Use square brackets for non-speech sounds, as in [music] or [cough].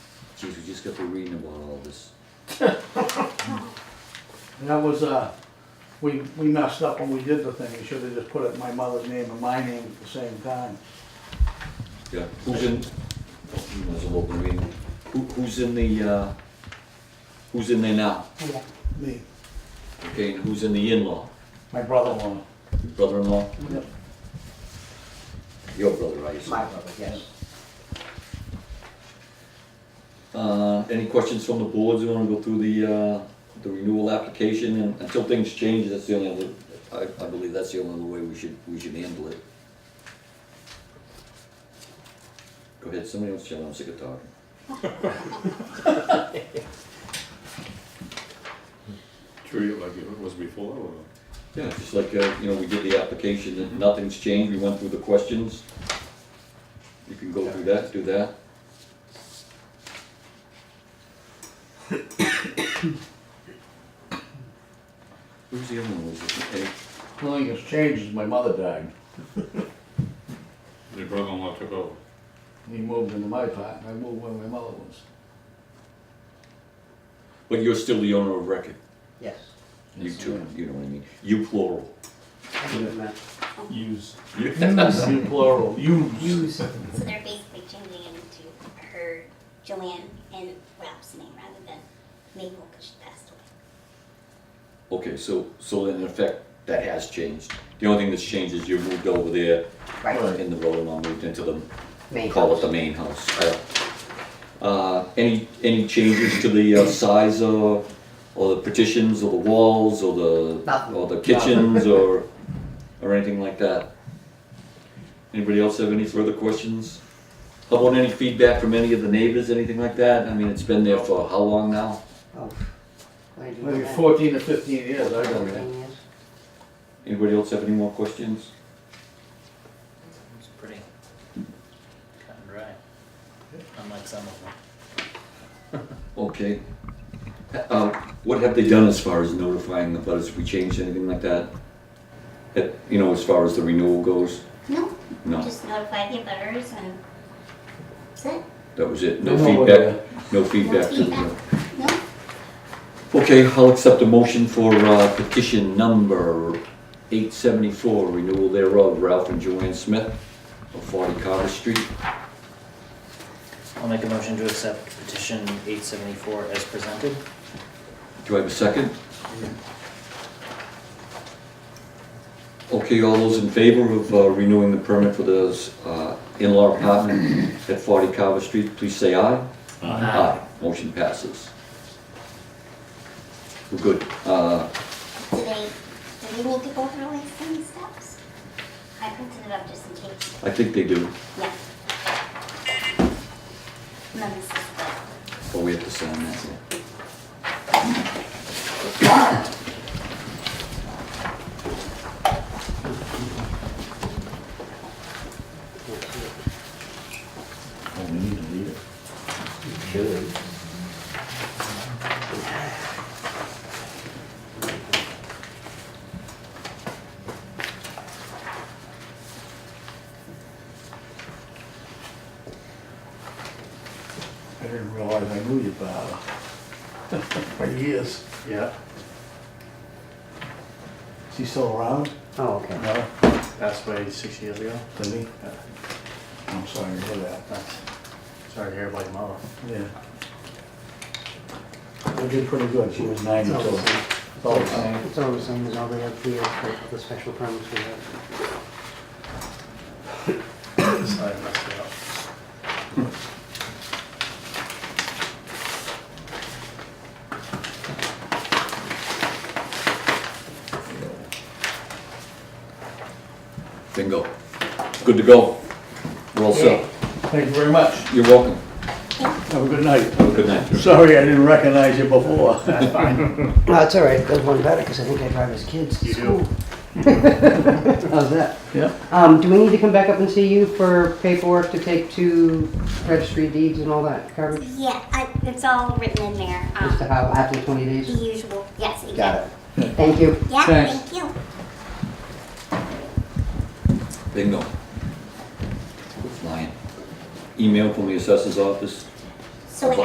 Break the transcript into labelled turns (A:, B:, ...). A: Geez, we just got through reading about all this.
B: And that was, uh, we, we messed up when we did the thing, we should have just put it in my mother's name and my name at the same time.
A: Yeah, who's in, oh, there's an open meeting, who, who's in the, uh, who's in there now?
B: Me,
A: Okay, and who's in the in-law?
B: my brother-in-law.
A: Your Brother-in-law?
B: Yep.
A: Your brother, I assume.
C: My brother, yes.
A: Uh, any questions from the boards, you wanna go through the, uh, the renewal application, and until things change, that's the only other, I, I believe that's the only other way we should, we should handle it. Go ahead, somebody else, John, I'm sick of talking.
D: Treat it like it was before, or?
A: Yeah, just like, uh, you know, we did the application, and nothing's changed, we went through the questions. You can go through that, do that. Who's the other one, was it, Hey,
B: The only thing that's changed is my mother died,
D: Your brother-in-law took over.
B: he moved into my part, and I moved where my mother was.
A: but you're still the owner of record,
C: Yes.
A: you
B: Yes, I
A: two,
B: am.
A: you know what I mean, you plural. [laughs]
E: Use.
B: You plural, yous.
E: Use.
F: So they're basically changing it into her, Joanne, and Ralph's name rather than Mabel because she passed away.
A: Okay, so, so in effect, that has changed, the only thing that's changed is you moved over there,
C: Right,
A: and the brother-in-law moved into the
C: main
A: call it
C: house.
A: the main house. Uh, any, any changes to the uh, size of, or the partitions, or the walls, or the,
C: Nothing.
A: or the
C: [laughs]
A: kitchens, or, or anything like that? Anybody else have any further questions? How about any feedback from any of the neighbors, anything like that? I mean, it's been there for how long now?
C: Oh, what did you do
B: Maybe
C: that?
B: fourteen or fifteen years, I don't know.
C: [laughs] Fourteen years.
A: Anybody else have any more questions?
G: It's pretty cut and dry, unlike some of them.
A: Okay. Uh, What have they done as far as notifying the butters? Have we changed anything like that? Uh, You know, as far as the renewal goes?
F: No,
A: No,
F: just notify the butters and that's it.
A: that was it. No
B: No,
A: feedback, no
F: uh, No
A: feedback to the...
F: feedback. No,
A: Okay, I'll accept a motion for uh, petition number 874, renewal thereof, Ralph and Joanne Smith of 40 Carter Street.
G: I'll make a motion to accept petition eight seventy-four as presented.
A: Do I have a second? Okay, all those in favor of uh, renewing the permit for the uh, in-law apartment at 40 Carver Street, please say aye. Motion passes. We're good. Uh,
F: do they, do they need to go through like some steps? I printed it up just in case,
A: I think they do,
F: yeah. And then this is the,
A: but we have to sign that.
E: Oh, we need to leave it. Kill it.
B: I didn't realize I knew you, Bob. [laughs] For years.
G: Yeah.
B: Is he still around?
C: Oh, okay.
G: No, passed away six years ago.
B: Did he? Uh,
G: Yeah.
B: I'm sorry to hear that.
G: That's- Sorry to hear about your mother.
B: Yeah. They did pretty good, she was ninety,
C: It's
B: so
C: all the same.
B: it's all the same.
C: It's all the same as all the other years, but the special permits we have.
G: Sorry, I messed it up.
A: Bingo. Good to go. We're all set.
B: Thank you very much.
A: You're welcome.
B: Have a good night.
A: Have a good night.
B: Sorry I didn't recognize you before.
C: No, it's all right, there's one better, because I think I drive his kids to
G: You do.
C: school. How's that?
B: [laughs] Yeah.
C: Um, do we need to come back up and see you for paperwork to take to registry deeds and all that garbage?
F: yeah, I, it's all written in there,
C: Just to
F: um,
C: have after twenty
F: the
C: days?
F: usual, yes, exactly.
C: Got it. Thank you.
F: Yeah,
B: Thanks.
F: thank you.
A: Bingo. Lying. Email from the assessor's office.